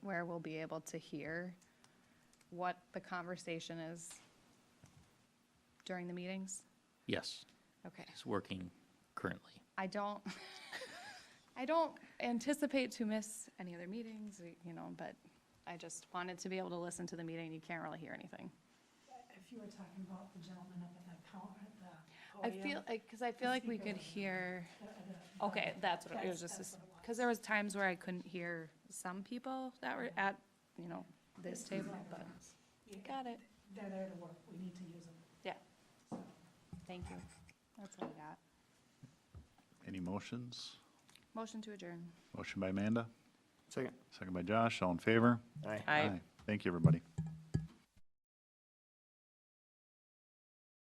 where we'll be able to hear what the conversation is during the meetings? Yes, Okay. it's working currently. I don't, I don't anticipate to miss any other meetings, you know, but I just wanted to be able to listen to the meeting. You can't really hear anything. If you were talking about the gentleman up at that counter, at the I feel, podium, because I feel like we could hear, okay, that's what, it- it was just, That's- that's what it because there was times where I couldn't hear some people that were at, you know, this table, but, you- got it. They're there to work, we need to use them. Yeah, So, thank you. That's what I got. Any motions? Motion to adjourn. Motion by Amanda, Second. second by Josh, all in favor? Aye. Aye. Thank you, everybody.